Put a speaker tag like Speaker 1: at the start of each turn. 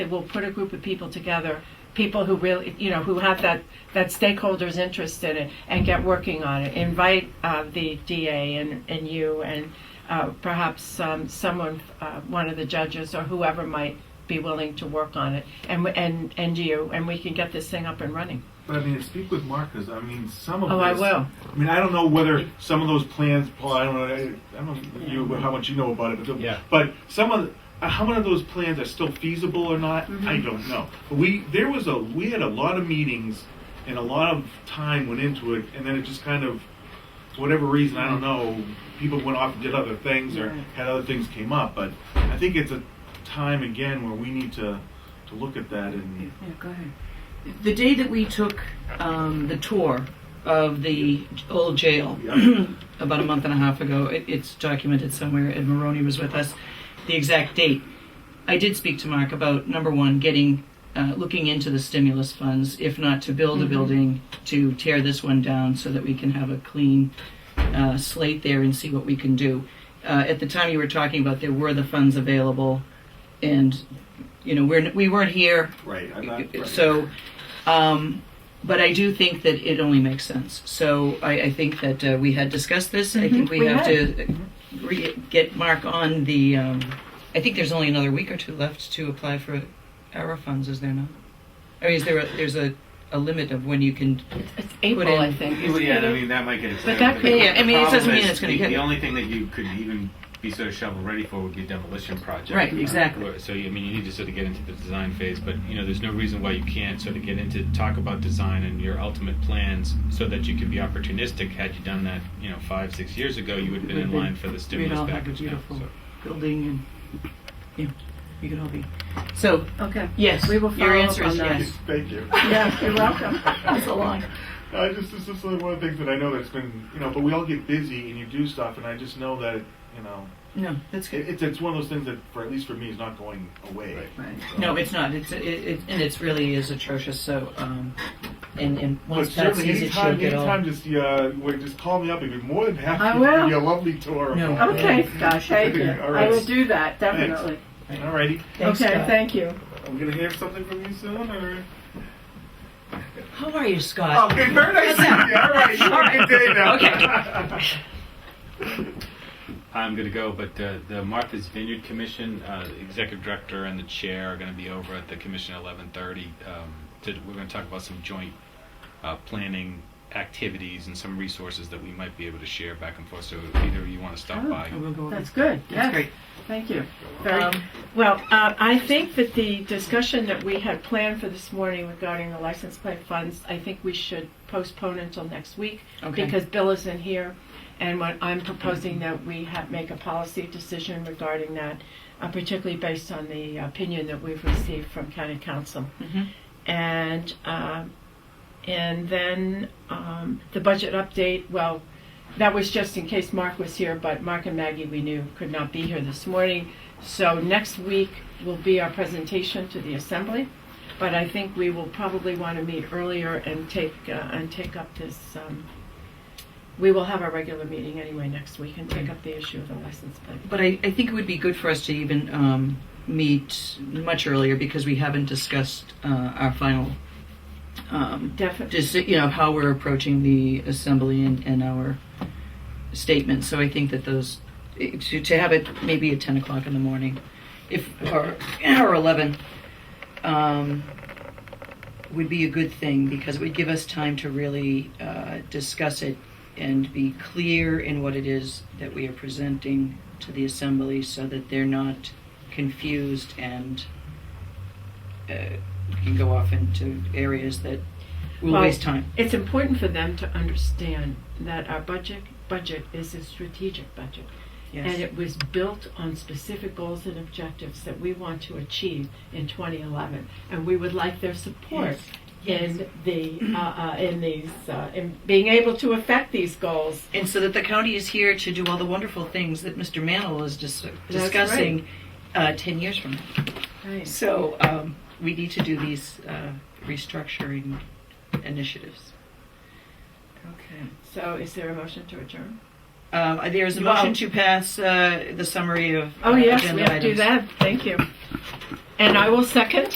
Speaker 1: We'll put a group of people together, people who really, you know, who have that, that stakeholders interest in it and get working on it. Invite uh, the DA and, and you and uh, perhaps um, someone, uh, one of the judges or whoever might be willing to work on it and, and, and you, and we can get this thing up and running.
Speaker 2: But I mean, speak with Marcus. I mean, some of
Speaker 1: Oh, I
Speaker 2: this-
Speaker 1: will.
Speaker 2: I mean, I don't know whether some of those plans, Paul. I don't know. I, I don't know you how much you know about it, but the-
Speaker 3: Yeah.
Speaker 2: But some of the, uh, how many of those plans are still feasible or not?
Speaker 1: Mm-hmm.
Speaker 2: I don't know. But we there was a we had a lot of meetings, and a lot of time went into it, and then it just kind of, for whatever reason, I don't know. People went off and did other things, or
Speaker 1: Mm-hmm. Right.
Speaker 2: had other things came up. But I think it's a time again where we need to to look at that and
Speaker 4: Yeah, go ahead. The day that we took um, the tour of the old jail
Speaker 2: Yeah.
Speaker 4: about a month and a half ago, it, it's documented somewhere, and Maroney was with us, the exact date. I did speak to Mark about number one, getting uh, looking into the stimulus funds, if not to build a building, to tear this one down so that we can have a clean uh, slate there and see what we can do. Uh, at the time you were talking about, there were the funds available, and you know we're, we weren't here
Speaker 2: right. I'm not, right.
Speaker 4: so, um, but I do think that it only makes sense. So I, I think that uh, we had discussed this. I think
Speaker 1: Mm-hmm.
Speaker 4: we,
Speaker 1: we
Speaker 4: have to re- get Mark on the. Um, I think there's only another week or two left to apply for our funds, is there not? Or is there a, there's a, a limit of when you can?
Speaker 1: It's April, I
Speaker 4: in-
Speaker 1: think.
Speaker 3: Well, yeah, and I mean that might get extended.
Speaker 1: that could-
Speaker 4: Yeah, I mean, it
Speaker 3: the
Speaker 4: doesn't
Speaker 3: problem
Speaker 4: mean
Speaker 3: is
Speaker 4: it's gonna
Speaker 3: the-
Speaker 4: get-
Speaker 3: The only thing that you could even be sort of shovel ready for would be a demolition project.
Speaker 4: Right, exactly.
Speaker 3: Or- So I mean, you need to sort of get into the design phase, but you know, there's no reason why you can't sort of get into talk about design and your ultimate plans, so that you can be opportunistic. Had you done that, you know, five six years ago, you would have been in line for the
Speaker 4: We'd
Speaker 3: stimulus
Speaker 4: all have a
Speaker 3: package. now,
Speaker 4: beautiful
Speaker 3: so.
Speaker 4: building, and yeah, you could all be. So
Speaker 1: Okay.
Speaker 4: yes,
Speaker 1: We will
Speaker 4: your
Speaker 1: follow up
Speaker 4: answer
Speaker 1: on
Speaker 4: is
Speaker 1: that.
Speaker 4: yes.
Speaker 2: Thank you.
Speaker 1: Yeah, you're welcome. That was a long.
Speaker 2: I just this is like one of the things that I know that's been you know, but we all get busy and you do stuff, and I just know that you know
Speaker 4: No, that's good.
Speaker 2: it, it's it's one of those things that for at least for me is not going away.
Speaker 4: No, it's not. It's it, it and it's really is atrocious. So, um, and and
Speaker 2: But
Speaker 4: once that
Speaker 2: certainly,
Speaker 4: sees it, she'll
Speaker 2: anytime,
Speaker 4: get all.
Speaker 2: anytime, just uh, wait, just call me up. I'd be more than happy
Speaker 1: I
Speaker 2: to give
Speaker 1: will.
Speaker 2: you a lovely tour. of
Speaker 4: No.
Speaker 2: my-
Speaker 1: Okay, Scott, thank you.
Speaker 2: All
Speaker 1: I
Speaker 2: right.
Speaker 1: will do that, definitely.
Speaker 2: Alrighty,
Speaker 4: Thanks,
Speaker 1: Okay,
Speaker 4: Scott.
Speaker 1: thank you.
Speaker 2: I'm gonna hear something from you soon. Or Oh,
Speaker 4: How are you, Scott?
Speaker 2: okay, very nice. to meet you. All right, you have a good day now. Okay.
Speaker 3: I'm going to go, but uh, the Martha's Vineyard Commission, uh, the executive director and the chair are going to be over at the commission at 11:30. Um, to, we're going to talk about some joint uh, planning activities and some resources that we might be able to share back and forth. So either you want to stop
Speaker 1: Oh,
Speaker 3: by.
Speaker 4: And we'll go over-
Speaker 1: That's good.
Speaker 4: That's
Speaker 1: Yes.
Speaker 4: great.
Speaker 1: Thank you. Very
Speaker 4: Um,
Speaker 1: Well, uh, I think that the discussion that we had planned for this morning regarding the license plate funds, I think we should postpone until next week
Speaker 4: Okay.
Speaker 1: because Bill isn't here, and what I'm proposing that we have, make a policy decision regarding that, uh, particularly based on the opinion that we've received from county council.
Speaker 4: Mhm.
Speaker 1: And um, and then um, the budget update. Well, that was just in case Mark was here, but Mark and Maggie we knew could not be here this morning. So next week will be our presentation to the assembly, but I think we will probably want to meet earlier and take uh, and take up this. Um, we will have our regular meeting anyway next week and take up the issue of the license plate.
Speaker 4: But I, I think it would be good for us to even um, meet much earlier because we haven't discussed uh, our final. Um,
Speaker 1: Definitely.
Speaker 4: just you know how we're approaching the assembly and, and our statement. So I think that those to, to have it maybe at ten o'clock in the morning, if or or eleven, um, would be a good thing because it would give us time to really uh, discuss it and be clear in what it is that we are presenting to the assembly, so that they're not confused and. Uh, can go off into areas that will
Speaker 1: Well,
Speaker 4: waste time.
Speaker 1: It's important for them to understand that our budget budget is a strategic budget.
Speaker 4: Yes.
Speaker 1: And it was built on specific goals and objectives that we want to achieve in 2011. And we would like their support in the, uh, uh, in these, uh, in being able to affect these goals.
Speaker 4: and so that the county is here to do all the wonderful things that Mr. Mantle is dis-
Speaker 1: That's
Speaker 4: discussing uh, 10 years from now. So um, we need to do these uh, restructuring initiatives.
Speaker 1: Okay. So is there a motion to adjourn?
Speaker 4: Uh, there is a
Speaker 1: Well-
Speaker 4: motion to pass uh, the summary of
Speaker 1: Oh,
Speaker 4: uh,
Speaker 1: yes, we
Speaker 4: agenda
Speaker 1: have to do
Speaker 4: items.
Speaker 1: that. Thank you. And I will second.